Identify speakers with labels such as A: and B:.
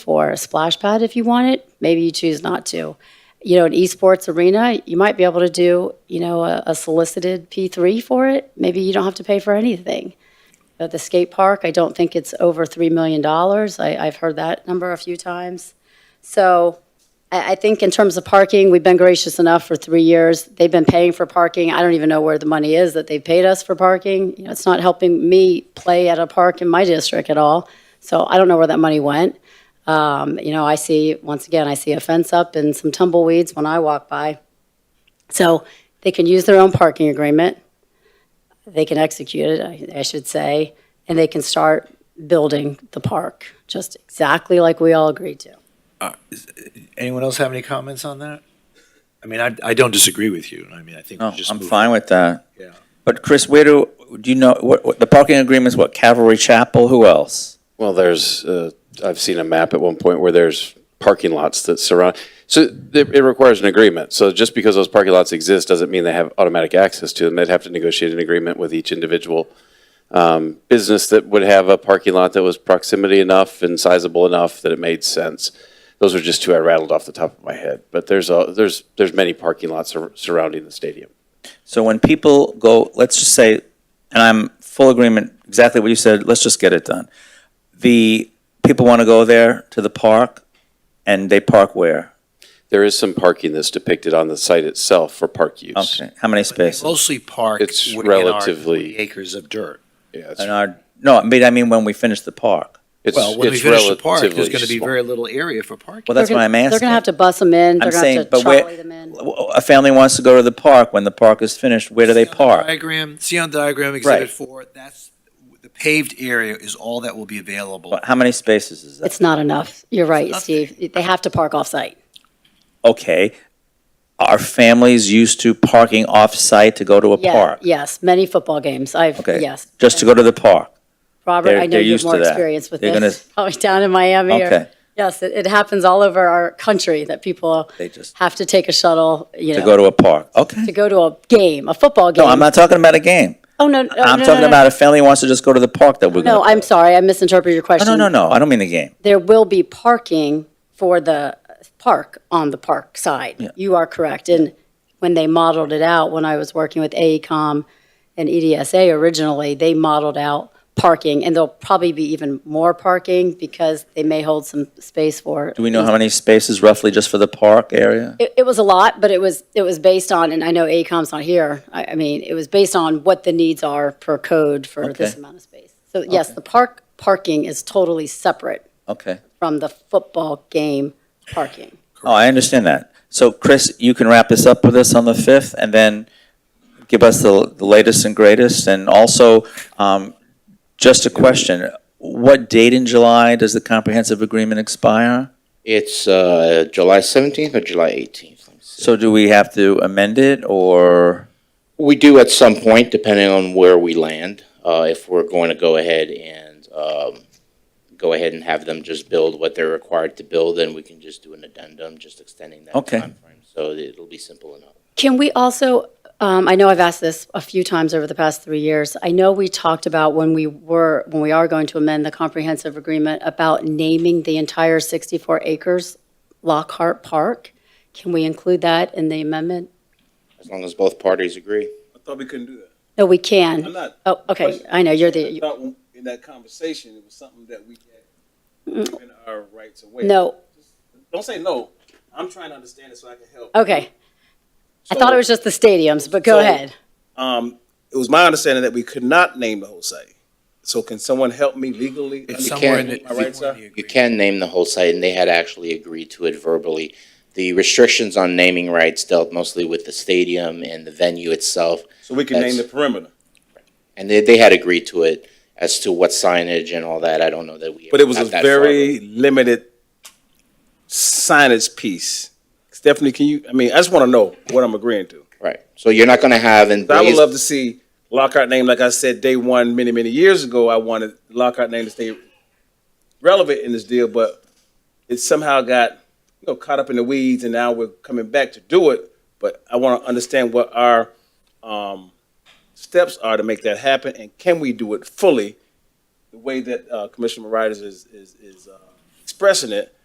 A: for a splash pad if you want it. Maybe you choose not to. You know, an esports arena, you might be able to do, you know, a, a solicited P3 for it. Maybe you don't have to pay for anything. At the skate park, I don't think it's over $3 million. I, I've heard that number a few times. So I, I think in terms of parking, we've been gracious enough for three years. They've been paying for parking. I don't even know where the money is that they've paid us for parking. You know, it's not helping me play at a park in my district at all. So I don't know where that money went. Um, you know, I see, once again, I see a fence up and some tumbleweeds when I walk by. So they can use their own parking agreement. They can execute it, I- I should say, and they can start building the park, just exactly like we all agreed to.
B: Anyone else have any comments on that? I mean, I, I don't disagree with you. I mean, I think we
C: No,
B: just.
C: I'm
B: move
C: fine
B: on.
C: with that.
B: Yeah.
C: But Chris, where do, do you know, what, what, the parking agreement's what, Calvary Chapel, who else?
D: Well, there's, uh, I've seen a map at one point where there's parking lots that surround, so it it requires an agreement. So just because those parking lots exist doesn't mean they have automatic access to them. They'd have to negotiate an agreement with each individual um, business that would have a parking lot that was proximity enough and sizable enough that it made sense. Those are just two I rattled off the top of my head, but there's, a- there's, there's many parking lots sur- surrounding the stadium.
C: So when people go, let's just say, and I'm full agreement, exactly what you said, let's just get it done. The, people want to go there to the park, and they park where?
D: There is some parking that's depicted on the site itself for park use.
C: Okay, how many spaces?
B: Mostly park.
D: It's
B: w- in our
D: relatively-
B: 40 Acres of dirt.
D: Yeah, it's-
C: And our, no, I mean, I mean when we finish the park.
D: it's-
B: Well, when we
D: it's
B: finish the park, there's
D: relatively
B: going to be
D: small.
B: very little area for parking.
C: Well, that's
A: They're
C: what
A: gonna-
C: I'm asking.
A: They're going to have to bus them in, they're going
C: I'm
A: to
C: saying,
A: have to
C: but where,
A: trolley them in.
C: a family wants to go to the park, when the park is finished, where do they
B: See on the
C: park?
B: Diagram, see on diagram exhibit
C: Right.
B: four, that's, the paved area is all that will be available.
C: How many spaces is that?
A: It's not enough. You're right,
B: enough.
A: Steve. They have to park off-site.
C: okay, are families used to parking off-site to go to a
A: Yeah,
C: park?
A: Yes, many football games. I've,
C: Okay,
A: yes.
C: Just to go to the park?
A: Robert,
C: They're-
A: I know
C: they're
A: you have
C: used
A: more
C: to that.
A: experience with
C: They're
A: this, probably down in Miami. or-
C: Okay.
A: Yes, it, it happens all over our country that people
C: They just-
A: have to take a shuttle, you know.
C: To go to a park? Okay.
A: to go to a game, a football game.
C: No, I'm not talking about a game.
A: Oh, no, no, no,
C: I'm
A: no,
C: talking
A: no,
C: about a family wants to just go to the park that we're
A: No,
C: gonna.
A: No, I'm sorry, I misinterpreted your
C: No,
A: question.
C: no, no, no, I don't mean the game.
A: There will be parking for the park on the park side. You are correct. And when they modeled it out, when I was working with E AECom and E EDSA originally, they modeled out parking, and there'll probably be even more parking because they may hold some space for.
C: Do we know how many spaces roughly just for the park area?
A: It, it was a lot, but it was, it was based on, and I know E AECom's not here, I, I mean, it was based on what the needs are per code for this
C: Okay.
A: amount of space. So yes, the park, parking is totally separate
C: Okay.
A: from the football game parking.
C: Oh, I understand that. So Chris, you can wrap this up with us on the 5th and then give us the the latest and greatest. And also, um, just a question, what date in July does the comprehensive agreement expire?
E: It's uh, July 17th or July 18th. Let me see.
C: So do we have to amend it, or,
E: We do at some point, depending on where we land, uh, if we're going to go ahead and um, go ahead and have them just build what they're required to build, then we can just do an addendum, just extending that
C: Okay.
E: timeframe. So it'll be simple enough.
A: Can we also, um, I know I've asked this a few times over the past three years. I know we talked about when we were, when we are going to amend the comprehensive agreement about naming the entire 64 acres Lockhart Park. Can we include that in the amendment?
E: As long as both parties agree.
F: I thought we couldn't do that.
A: No, we
F: I'm
A: can.
F: not.
A: Oh, okay, I know, you're the,
F: I thought when- in that conversation, it was something that we had given our rights away.
A: Mm. no,
F: Don't say no. I'm trying to understand it so I can help.
A: okay. I thought it was just the stadiums, but go
F: So-
A: ahead.
F: Um, it was my understanding that we could not name the whole site. So can someone help me legally?
B: It's
E: You
B: somewhere in
E: can't-
B: the.
F: My rights are-
E: You can name the whole site, and they had actually agreed to it verbally. The restrictions on naming rights dealt mostly with the stadium and the venue itself.
F: So we can name the
E: That's-
F: perimeter.
E: And they, they had agreed to it as to what signage and all that. I don't know that we.
F: But it was a
E: got that far,
F: very limited signage piece. Stephanie, can you, I mean, I just want to know what I'm agreeing to.
E: but- Right. So you're not going to have in.
F: So I would love to see Lockhart name, like I said, day one, many, many years ago, I wanted Lockhart name to stay relevant in this deal, but it somehow got, you know, caught up in the weeds and now we're coming back to do it. But I want to understand what our, um, steps are to make that happen and can we do it fully the way that, uh, Commissioner Moritas is, is, is, uh, expressing it,